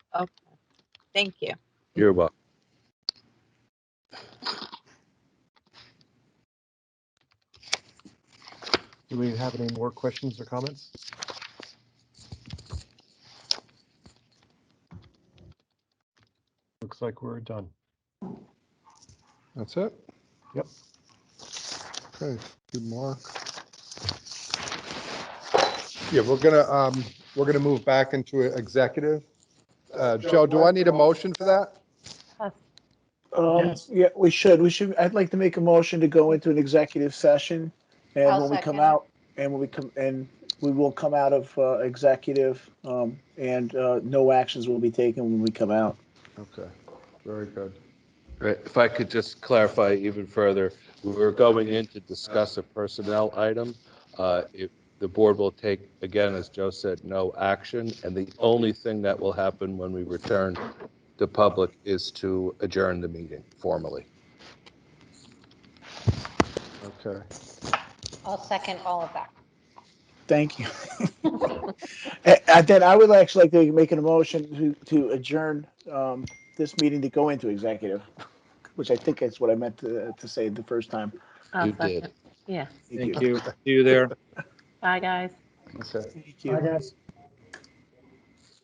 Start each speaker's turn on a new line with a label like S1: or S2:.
S1: Okay, thank you.
S2: You're welcome.
S3: Do we have any more questions or comments? Looks like we're done.
S4: That's it?
S3: Yep.
S4: Okay, good mark. Yeah, we're gonna, um, we're gonna move back into executive. Uh, Joe, do I need a motion for that?
S5: Um, yeah, we should, we should, I'd like to make a motion to go into an executive session.
S1: I'll
S5: And when we come
S1: second.
S5: out, and when we come, and we will come out of, uh, executive, um, and, uh, no actions will be taken when we come out.
S4: Okay, very good.
S2: Right, if I could just clarify even further, we were going in to discuss a personnel item. Uh, If the board will take, again, as Joe said, no action, and the only thing that will happen when we return to public is to adjourn the meeting formally.
S4: Okay,
S6: I'll second all of that.
S5: Thank you. A- And then I would actually like to make an motion to, to adjourn, um, this meeting to go into executive, which I think is what I meant to, to say the first time.
S1: I'll
S2: You
S1: second.
S2: did.
S1: Yeah,
S5: Thank
S7: Thank
S5: you.
S7: you. See you there.
S1: bye, guys.
S4: okay.
S5: Thank you.
S7: guys.